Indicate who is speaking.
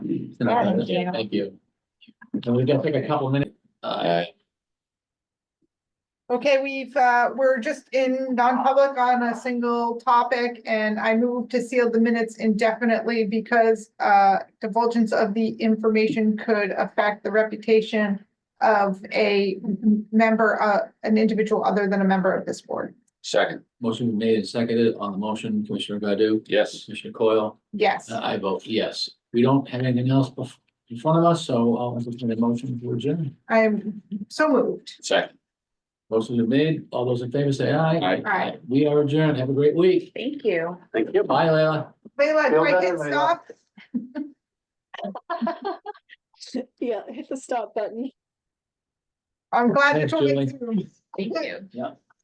Speaker 1: you.
Speaker 2: Yeah, thank you.
Speaker 1: Thank you. And we're gonna take a couple minutes. Uh,
Speaker 2: Okay, we've, uh, we're just in non-public on a single topic and I move to seal the minutes indefinitely because, uh, divulgence of the information could affect the reputation of a m- member, uh, an individual other than a member of this board.
Speaker 3: Second,
Speaker 1: motion was made and seconded on the motion, Commissioner Godu,
Speaker 3: yes.
Speaker 1: Commissioner Coyle,
Speaker 2: Yes.
Speaker 1: Uh, I vote yes. We don't have anything else bef- in front of us, so I'll entertain a motion to adjourn.
Speaker 2: I am so moved.
Speaker 3: Second.
Speaker 1: Motion is made. All those in favor say aye.
Speaker 3: Aye.
Speaker 2: Aye.
Speaker 1: We are adjourned. Have a great week.
Speaker 4: Thank you.
Speaker 3: Thank you.
Speaker 1: Bye, Leila.
Speaker 2: Leila, do
Speaker 3: Feel
Speaker 2: I
Speaker 3: better,
Speaker 2: hit
Speaker 3: Leila.
Speaker 2: stop?
Speaker 4: Yeah, hit the stop button.
Speaker 2: I'm glad.
Speaker 1: Thanks,
Speaker 2: that we're
Speaker 1: Julie.
Speaker 2: Zoom.
Speaker 4: Thank you.
Speaker 1: Yeah.